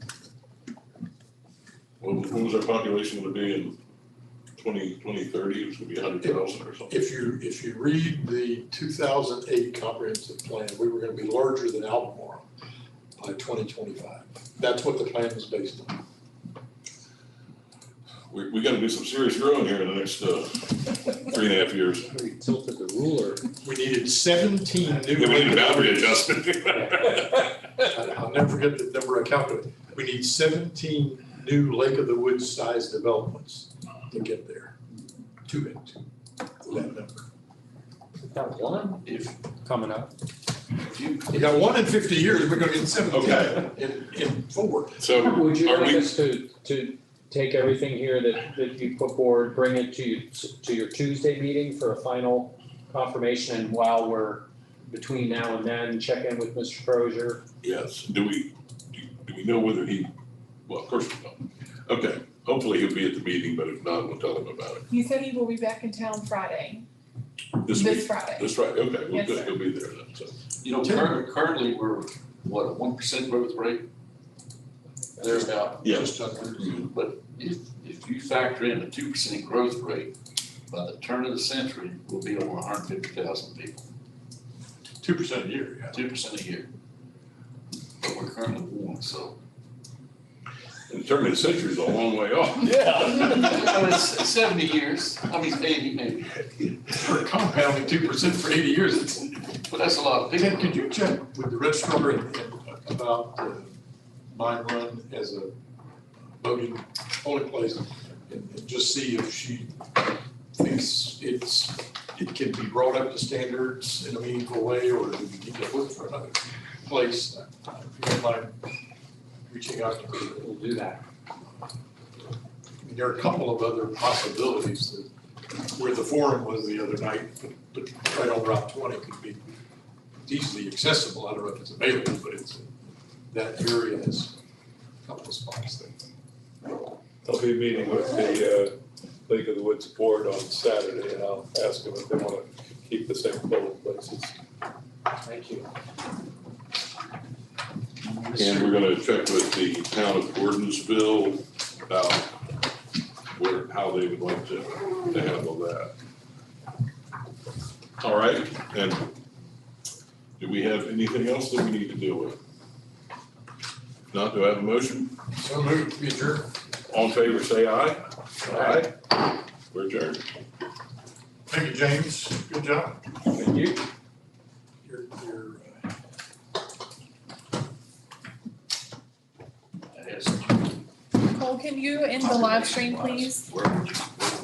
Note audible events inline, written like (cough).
What, what was our population would be in twenty, twenty thirty, which would be a hundred thousand or something? If you, if you read the two thousand eight comprehensive plan, we were gonna be larger than Albemarle by twenty twenty-five. That's what the plan was based on. We, we gotta do some serious growing here in the next, uh, three and a half years. (laughs) We tilted the ruler. We needed seventeen new. Yeah, we need a boundary acres. adjustment. I- I'll never forget the number I calculated. We need seventeen new Lake of the Woods sized developments to get there. Two it, to that number. Got one If, coming up. we got one in fifty years, we're gonna get Okay. seventeen in, in four. (laughs) So Would you are like we, us to, to take everything here that, that you put forward, bring it to, you- to your Tuesday meeting for a final confirmation? And while we're between now and then, check in with Mr. Crozier. yes, do we, do do we know whether he, well, of course we don't. Okay, hopefully he'll be at the meeting, but if not, we'll tell him about it. He said he will be back in town Friday, This this week, Friday. that's right, okay, well, Yes, good, sir. he'll be there then, so. You know, currently, currently, we're, what, a one percent growth rate? Thereabout, Yeah. Just under. but if, if you factor in a two percent growth rate, by the turn of the century, we'll be over hundred fifty thousand people, Two percent a year, yeah. two percent a year. But we're currently one, so. And turn of the century is a long way off. (laughs) Well, it's Seventy years, I mean, eighty maybe, We're (laughs) compounding two percent for eighty years. It's- but that's a lot of people. Ted, Uh, could you check with the registrar and- and about uh, mine run as a voting polling place? And and just see if she thinks it's, it can be brought up to standards in a meaningful way, or do we need to look for another place? If you don't mind reaching out to her. We'll do that. There are a couple of other possibilities that, where the forum was the other night, but, but right on Route twenty could be easily accessible, I don't know if it's available, but it's, that area has a couple of spots there. I'll be meeting with the uh, League of the Woods Board on Saturday, and I'll ask them if they want to keep the same polling places. Thank you. And we're gonna check with the town of Gordonsville about where, how they would like to, to handle that. All right, and do we have anything else that we need to deal with? Not, do I have a motion? So moved, we adjourn. All in favor, say aye. Aye. We're adjourned. Thank you, James, good job. Thank you. Your, your, uh, Yes. Cole, can you end the live stream, please? Where would you-